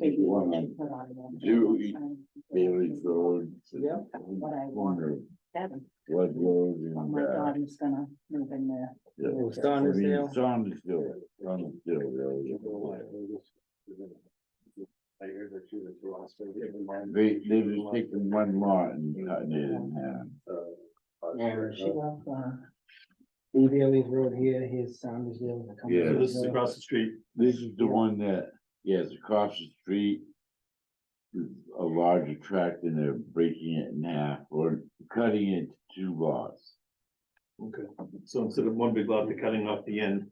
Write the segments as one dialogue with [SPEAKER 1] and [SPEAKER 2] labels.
[SPEAKER 1] um,
[SPEAKER 2] put on them.
[SPEAKER 1] do eat Bailey's Road.
[SPEAKER 2] Yep. What I want.
[SPEAKER 1] Wonder
[SPEAKER 2] Heaven.
[SPEAKER 1] What road and. uh,
[SPEAKER 2] Oh, my God, he's gonna move in there.
[SPEAKER 1] Yeah.
[SPEAKER 3] It's done, it's
[SPEAKER 1] Maybe
[SPEAKER 3] now.
[SPEAKER 1] Saundersville, Saundersville Road.
[SPEAKER 4] I hear that you were through hospital.
[SPEAKER 1] They, they just taking one lot and cutting it in half.
[SPEAKER 2] Yeah, she left, uh,
[SPEAKER 3] Bailey's Road here, here's Saundersville. the company
[SPEAKER 1] Yeah.
[SPEAKER 4] This is
[SPEAKER 3] road.
[SPEAKER 4] across the street.
[SPEAKER 1] This is the one that, yes, across the street. is A larger tract and they're breaking it in half or cutting it to two lots.
[SPEAKER 4] Okay. So instead of one big lot, they're cutting off the end.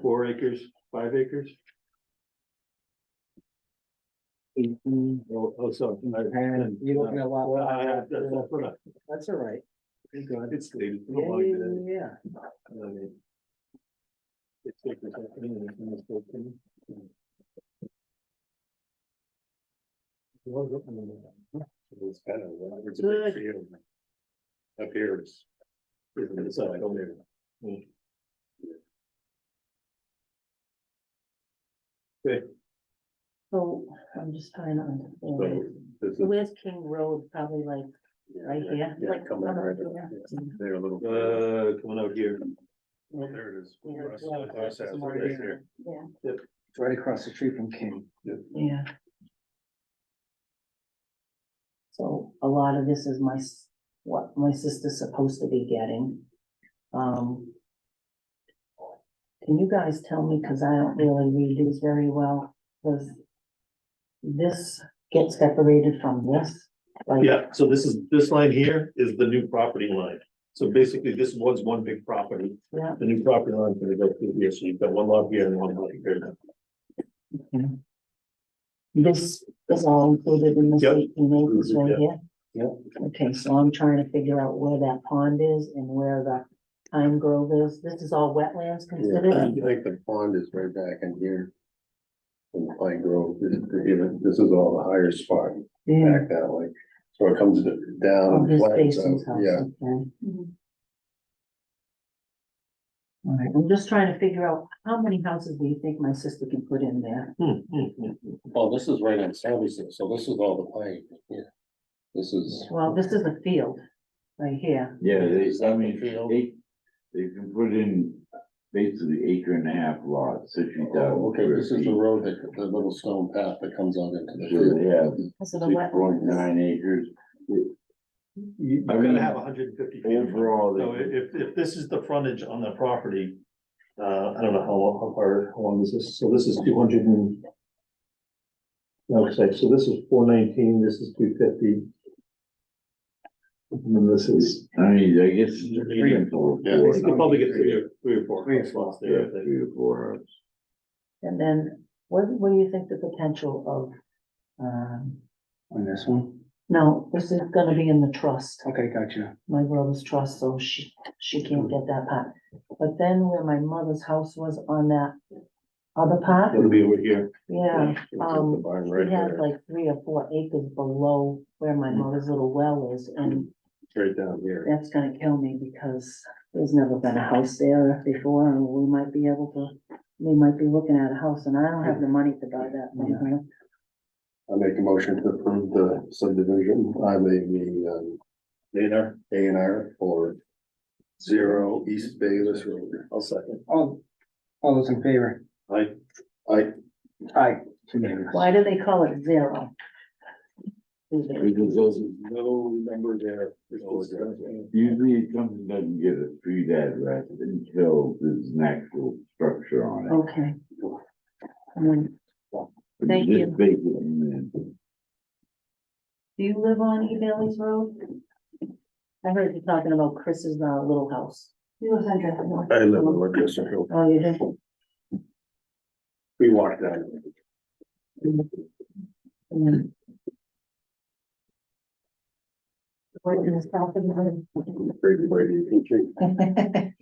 [SPEAKER 4] Four acres, five acres?
[SPEAKER 3] Mhm.
[SPEAKER 4] Oh, oh, so.
[SPEAKER 3] And you're looking at lot-
[SPEAKER 4] Well, uh, I- I- that's- that's what I-
[SPEAKER 3] That's all right. You're good.
[SPEAKER 4] It's stated. I don't
[SPEAKER 3] Yeah,
[SPEAKER 4] mind
[SPEAKER 3] yeah,
[SPEAKER 4] that.
[SPEAKER 3] yeah.
[SPEAKER 4] I mean, It's like it's happening and it's not spoken. It was up in the middle. It was kind of, well, it's a
[SPEAKER 3] Good.
[SPEAKER 4] big field. Up here is. is on the side over there.
[SPEAKER 2] so I'm just trying to understand.
[SPEAKER 4] So this is-
[SPEAKER 2] Where's King Road? Probably like right here.
[SPEAKER 4] Yeah,
[SPEAKER 2] like
[SPEAKER 4] come in
[SPEAKER 2] up
[SPEAKER 4] right
[SPEAKER 2] here.
[SPEAKER 4] There a little. Uh, coming out here.
[SPEAKER 2] Yeah.
[SPEAKER 4] There it is.
[SPEAKER 2] Yeah,
[SPEAKER 4] Russ-
[SPEAKER 2] yeah,
[SPEAKER 4] Russ
[SPEAKER 2] that's
[SPEAKER 4] has it
[SPEAKER 2] more
[SPEAKER 4] right
[SPEAKER 2] here.
[SPEAKER 4] there.
[SPEAKER 2] Yeah,
[SPEAKER 3] It's right across the street from King.
[SPEAKER 2] yeah. So a lot of this is my, s- what my sister's supposed to be getting. Um. Can you guys tell me, cause I don't really read these very well, does this get separated from this? Like,
[SPEAKER 4] Yeah, so this is, this line here is the new property line. So basically, this was one big property.
[SPEAKER 2] Yeah,
[SPEAKER 4] The new property line is gonna go through here, so you've got one lot here and one lot here.
[SPEAKER 2] this is all included in this
[SPEAKER 4] Yep.
[SPEAKER 2] eighteen acres right
[SPEAKER 4] Yep.
[SPEAKER 2] here? Okay, so I'm trying to figure out where that pond is and where the pine grove is. This is all wetlands
[SPEAKER 5] Yeah,
[SPEAKER 2] considered?
[SPEAKER 5] I think the pond is right back in here. In Pine Grove, this is, this is all the higher spot
[SPEAKER 2] Yeah.
[SPEAKER 5] back that way, so it comes down.
[SPEAKER 2] Oh,
[SPEAKER 5] and
[SPEAKER 2] this
[SPEAKER 5] flats
[SPEAKER 2] basin's
[SPEAKER 5] out.
[SPEAKER 2] house,
[SPEAKER 5] Yeah,
[SPEAKER 2] okay. All right, I'm just trying to figure out how many houses do you think my sister can put in there?
[SPEAKER 4] Hmm, hmm, hmm.
[SPEAKER 5] well, Oh, this is right on Savisor, so this is all the pine, yeah. This is,
[SPEAKER 2] Well, this is a field right here.
[SPEAKER 1] Yeah, they,
[SPEAKER 5] Is
[SPEAKER 1] I
[SPEAKER 5] that the
[SPEAKER 1] mean,
[SPEAKER 5] field?
[SPEAKER 1] they, they can put in basically acre and a half lots, sixty thousand.
[SPEAKER 5] oh, okay, this is the road that, the little stone path that comes out into the field.
[SPEAKER 1] They have
[SPEAKER 2] Because of the
[SPEAKER 1] six
[SPEAKER 2] wetlands.
[SPEAKER 1] point nine acres.
[SPEAKER 4] You- You're gonna have hundred and fifty feet.
[SPEAKER 1] Overall,
[SPEAKER 4] So i-
[SPEAKER 1] they-
[SPEAKER 4] if, if this is the frontage on the property, uh, I don't know how, lo- how far, how long is this? So this is two hundred and. Okay, so this is four nineteen, this is two fifty. And then this is.
[SPEAKER 1] I mean, I guess. it's a
[SPEAKER 4] Three.
[SPEAKER 1] handful of
[SPEAKER 5] Yeah.
[SPEAKER 4] You
[SPEAKER 1] four.
[SPEAKER 4] could probably get three or, three or four.
[SPEAKER 3] Three or
[SPEAKER 4] house lots
[SPEAKER 1] Yeah,
[SPEAKER 4] there, I think.
[SPEAKER 1] three or four houses.
[SPEAKER 2] And then what, what do you think the potential of, um,
[SPEAKER 3] On this one?
[SPEAKER 2] no, this is gonna be in the trust.
[SPEAKER 3] Okay, gotcha.
[SPEAKER 2] my brother's trust, so she, she can't get that part. But then where my mother's house was on that other part,
[SPEAKER 4] That'll be over here.
[SPEAKER 2] yeah, um,
[SPEAKER 5] The barn right
[SPEAKER 2] she has
[SPEAKER 5] there,
[SPEAKER 2] like three or four acres below where my mother's little well is, and
[SPEAKER 5] right down here.
[SPEAKER 2] that's gonna kill me because there's never been a house there before, and we might be able to, we might be looking at a house, and I don't have the money to buy that right now.
[SPEAKER 5] I make a motion to approve the subdivision, I mean, the, um. A and R. for zero East Bayless Road.
[SPEAKER 4] I'll second.
[SPEAKER 3] All, all those in favor?
[SPEAKER 4] I,
[SPEAKER 5] I,
[SPEAKER 3] Aye. Unanimous.
[SPEAKER 2] Why do they call it zero?
[SPEAKER 1] Because those,
[SPEAKER 5] no number there.
[SPEAKER 1] usually it comes and doesn't get a street address until there's an actual structure on it.
[SPEAKER 2] Okay. And then,
[SPEAKER 1] But
[SPEAKER 2] Oh, thank
[SPEAKER 1] just
[SPEAKER 2] you.
[SPEAKER 1] bake it in and-
[SPEAKER 2] Do you live on E. Bailey's Road? I heard you talking about Chris's uh, little house. You live on Dresden North.
[SPEAKER 5] I live in Lancaster Hill.
[SPEAKER 2] Oh, you do?
[SPEAKER 5] We walked down.
[SPEAKER 2] Mm. Right in the south of the room.
[SPEAKER 5] Pretty way you can check.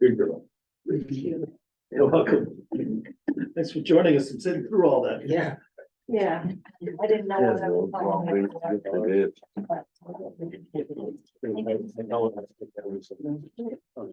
[SPEAKER 4] Good girl. You're welcome. Thanks for joining us and sitting through all that.
[SPEAKER 3] Yeah.
[SPEAKER 2] Yeah, I didn't know.
[SPEAKER 1] Yeah,
[SPEAKER 2] what I
[SPEAKER 1] so
[SPEAKER 2] was
[SPEAKER 1] it's all
[SPEAKER 2] talking
[SPEAKER 1] based
[SPEAKER 2] about.
[SPEAKER 1] on this.
[SPEAKER 2] But-
[SPEAKER 4] I know what I'm saying.